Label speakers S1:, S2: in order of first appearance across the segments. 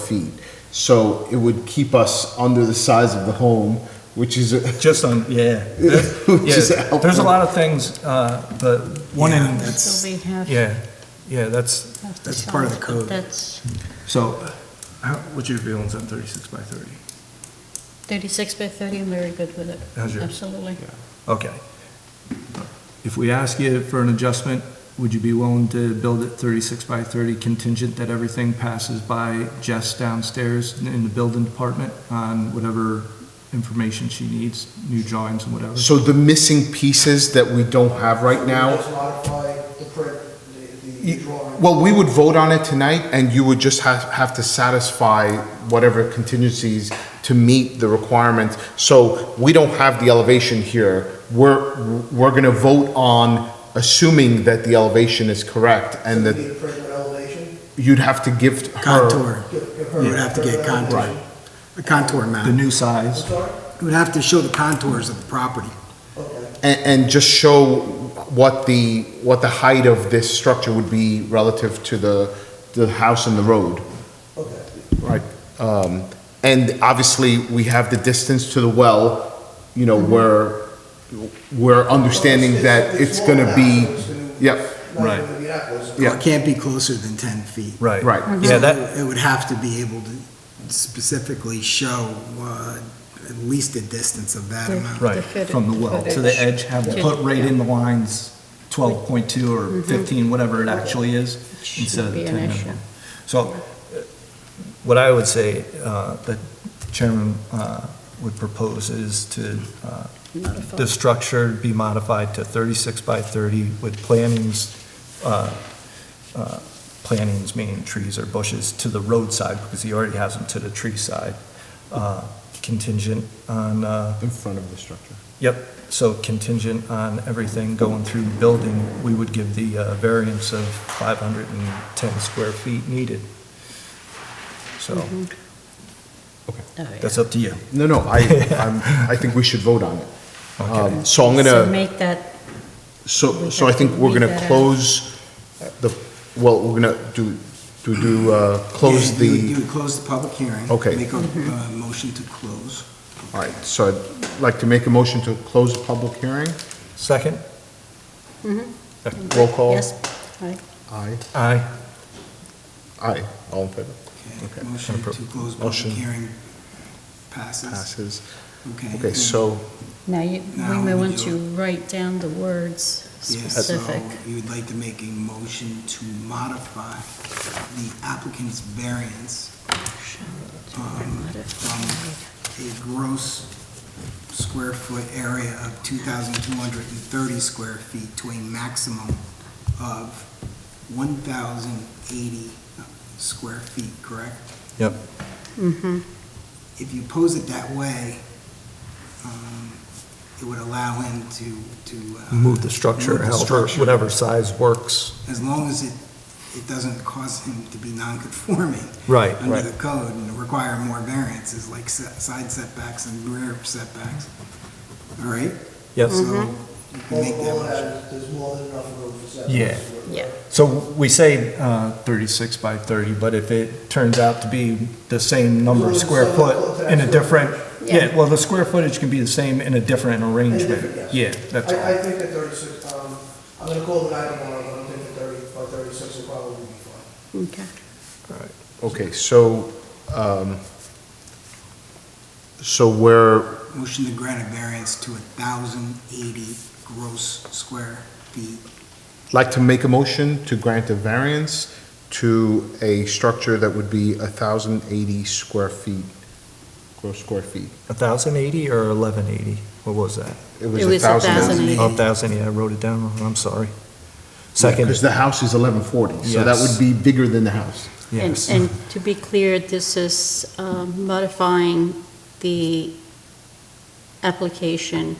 S1: feet. So it would keep us under the size of the home, which is, a-
S2: Just on, yeah.
S1: which is
S2: Yeah,
S1: helpful.
S2: there's a lot of things, uh, the one in,
S3: So we have.
S2: yeah, yeah, that's,
S3: have to
S4: That's part of the
S3: solve,
S4: code.
S3: but That's
S4: So, how, what's your feelings on thirty-six by thirty?
S3: 36 by 30, I'm very good with it.
S4: How's yours?
S3: Absolutely.
S2: okay.
S4: If we ask you for an adjustment, would you be willing to build it thirty-six by thirty contingent that everything passes by Jess downstairs in the building department on whatever information she needs, new drawings and whatever?
S1: So the missing pieces that we don't have right now,
S5: Just modify the print, the, the drawing.
S1: well, we would vote on it tonight and you would just have, have to satisfy whatever contingencies to meet the requirements. So we don't have the elevation here. We're, we're gonna vote on assuming that the elevation is correct and
S5: Need
S1: that
S5: a print with elevation.
S1: you'd have to give her.
S6: Contour,
S5: Give- give her
S6: we would have to get
S5: print with
S6: contour,
S5: elevation.
S6: a contour
S4: The
S6: map.
S4: new
S5: I'm
S4: size?
S5: sorry?
S6: We would have to show the contours of the property.
S5: Okay.
S1: And, and just show what the, what the height of this structure would be relative to the, the house and the road.
S5: Okay.
S1: Right. Um, and obviously, we have the distance to the well, you know, where we're understanding that Mm-hmm. it's gonna be, yep,
S2: Right.
S1: Yeah.
S6: It can't be closer than 10 feet.
S2: Right.
S1: right.
S2: Yeah, that,
S6: It would have to be able to specifically show uh, at least the distance of that amount.
S2: Right,
S4: from the well to the edge, have it put right in the lines, twelve point two or fifteen, whatever it actually is, instead of
S3: Be
S4: the
S3: an
S4: ten
S3: issue.
S4: minimum.
S2: so uh, what I would say uh, that the Chairman uh, would propose is to, uh,
S3: Modify.
S2: the structure be modified to 36 by 30 with plantings, uh, uh, plantings meaning trees or bushes, to the roadside, because he already has them to the tree side, uh, contingent on uh,
S1: In front of the structure.
S2: Yep, so contingent on everything going through building, we would give the uh, variance of 510 square feet needed. So,
S3: Oh, yeah.
S2: that's up to you.
S1: No, no, I, I'm, I think we should vote on it.
S2: Okay.
S1: Um, So I'm gonna.
S3: So make that,
S1: So,
S3: We
S1: so I
S3: have
S1: think
S3: to
S1: we're
S3: leave
S1: gonna
S3: that out.
S1: close the, well, we're gonna do, do, do, uh, close
S6: Yeah, you would- You
S1: the,
S6: would close the public hearing.
S1: Okay.
S6: Make a uh, motion to close.
S1: all right, so I'd like to make a motion to close the public hearing.
S2: Second?
S1: Roll call.
S3: yes, aye.
S1: Aye.
S2: Aye.
S1: Aye, all in favor?
S6: Okay.
S1: Okay.
S6: Motion to close public
S1: Motion.
S6: hearing passes.
S1: Passes.
S6: Okay.
S1: Okay, so,
S3: Now, you, we
S6: Now
S3: may
S6: we
S3: want
S6: do-
S3: to write down the words
S6: Yeah,
S3: specific.
S6: So you would like to make a motion to modify the applicant's variance um, from a gross square foot area of 2,230 square feet to a maximum of 1,080 square feet, correct?
S2: Yep.
S4: um,
S3: Mhm.
S6: If you pose it that way, um, it would allow him to, to. uh,
S2: Move the structure,
S6: move the
S2: however,
S6: structure.
S2: whatever size works.
S6: as long as it, it doesn't cause him to be non-conforming
S2: Right,
S6: under the code and require more variances, like se- side setbacks and rear setbacks. All right?
S2: Yes.
S6: So you can make that
S5: Multiple
S6: motion.
S5: has, there's more than enough room for setbacks.
S2: Yeah.
S3: Yeah.
S2: So we say uh, 36 by 30, but if it turns out to be the same number of square foot in a different, Mm-hmm. yeah, well, the square footage can be the same in a different arrangement.
S5: different,
S2: Yeah, that's
S5: I, I
S2: all.
S5: think that thirty-six, um, I'm gonna call it nine tomorrow, but I'm thinking thirty, by thirty-six will probably be fine.
S3: Okay.
S1: okay, so, um, so we're,
S6: Motion to grant a variance to 1,080 gross square feet.
S1: like to make a motion to grant a variance to a structure that would be thousand eighty square feet, gross square feet.
S2: 1,080 or 1,180? What was that?
S1: It
S3: It
S1: was
S3: was
S1: a thousand.
S3: 1,080.
S2: Oh, 1,000, yeah, I wrote it down wrong, I'm sorry.
S1: Because
S2: Second,
S1: the house is eleven forty, so that
S2: Yes.
S1: would be bigger than the house.
S3: And,
S2: yes.
S3: and to be clear, this is um, modifying the application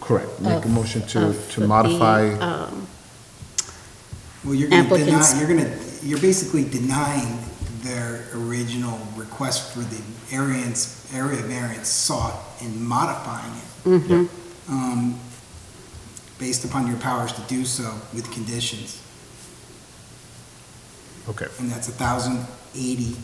S1: Correct. Make a
S3: of-
S1: motion to,
S3: of
S1: to
S3: the,
S1: modify,
S3: um,
S6: Well, you're going to
S3: Applicants.
S6: deny, you're going to, you're basically denying their original request for the variance, area variance sought and modifying it.
S3: mhm.
S6: um, based upon your powers to do so with conditions,
S1: okay,
S6: and that's 1,080